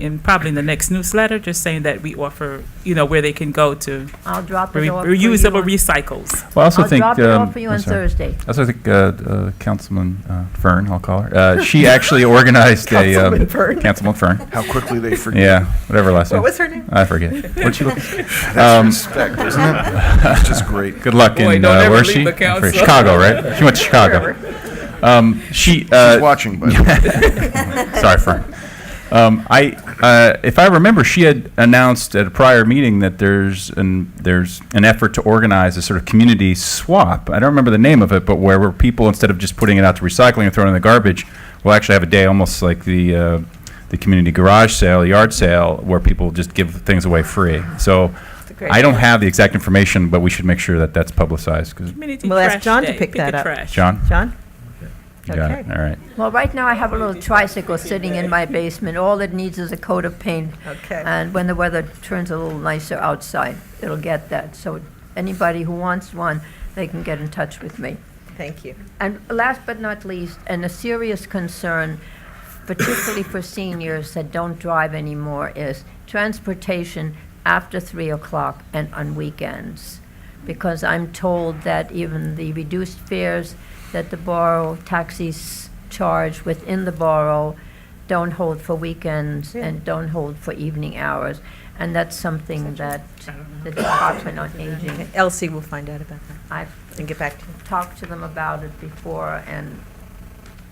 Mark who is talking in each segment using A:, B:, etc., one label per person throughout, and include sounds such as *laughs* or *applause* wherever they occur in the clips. A: in probably in the next newsletter, just saying that we offer, you know, where they can go to
B: I'll drop it
A: re-
B: off. for you
A: reusable
B: on-
A: recycles.
C: Well, I also
B: I'll
C: think.
B: drop it
C: um,
B: off for you
C: I'm
B: on
C: sorry.
B: Thursday.
C: I also think uh, uh, Councilman uh, Fern, I'll call her.
B: *laughs*
C: Uh, she actually organized a um,
D: Councilman Fern.
C: Councilman Fern.
E: How quickly they forget.
C: Yeah, whatever last name.
D: What was her name?
C: I forget.
B: *laughs*
C: What'd she look?
E: That's
C: Um,
E: respect, isn't it? It's just great.
C: *laughs* Good luck
A: Boy,
C: in
A: don't
C: uh,
A: ever
C: where's
A: leave
C: she?
A: the
C: I forget.
A: council.
C: Chicago, right? She went
D: *laughs*
C: to Chicago. Um, she. Uh,
E: She's watching, by the
C: *laughs*
E: way.
C: Sorry, Frank. Um, I, uh, if I remember, she had announced at a prior meeting that there's an there's an effort to organize a sort of community swap. I don't remember the name of it, but where, where people instead of just putting it out to recycling and throwing it in the garbage, will actually have a day almost like the uh, the community garage sale, yard sale, where people just give things away free. So.
D: great
C: I don't have the exact information, but we should make sure that that's publicized. 'cause-
A: Community
D: We'll ask
A: trash
D: John to
A: day.
D: pick that
A: a
D: up.
A: trash.
C: John,
D: John?
C: you got it.
D: Okay.
C: All right.
B: Well, right now I have a little tricycle sitting in my basement. All it needs is a coat of paint.
D: Okay.
B: And when the weather turns a little nicer outside, it'll get that. So anybody who wants one, they can get in touch with me.
D: Thank you.
B: And last but not least, and a serious concern, particularly for seniors that don't drive anymore, is transportation after three o'clock and on weekends. Because I'm told that even the reduced fares that the borough taxis charge within the borough don't hold for weekends and don't hold for evening hours. And that's something that the Department on Aging,
D: Elsie will find out about that
B: I've
D: and get back to you.
B: talked to them about it before, and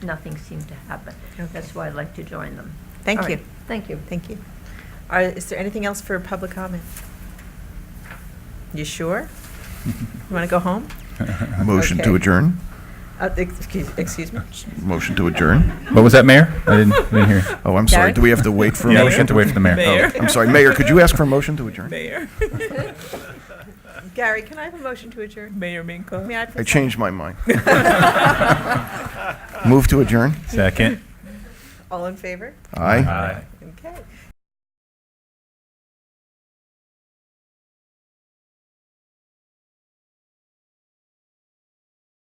B: nothing seemed to happen. That's why I'd like to join them. All
D: Thank
B: right.
D: you,
B: Thank you.
D: thank you. Are, is there anything else for public comment? You sure? You want to go home?
C: *laughs*
E: Motion
D: Okay.
E: to adjourn.
D: Uh, Excuse excuse me?
E: Motion to adjourn.
C: What was that, Mayor? I didn't, I didn't hear.
E: *laughs* Oh, I'm sorry.
D: Gary?
E: Do we have to wait for a
C: Yeah,
E: motion? Oh,
C: we have to wait for the mayor.
A: Mayor.
E: I'm sorry. Mayor, could you ask for a motion to adjourn?
A: Mayor,
D: Gary, can I have a motion to adjourn?
A: Mayor Minko.
D: May I
E: I
D: please-
E: changed my mind. *laughs* Move to adjourn?
C: Oh, Second.
D: All in favor?
E: Aye.
D: Okay.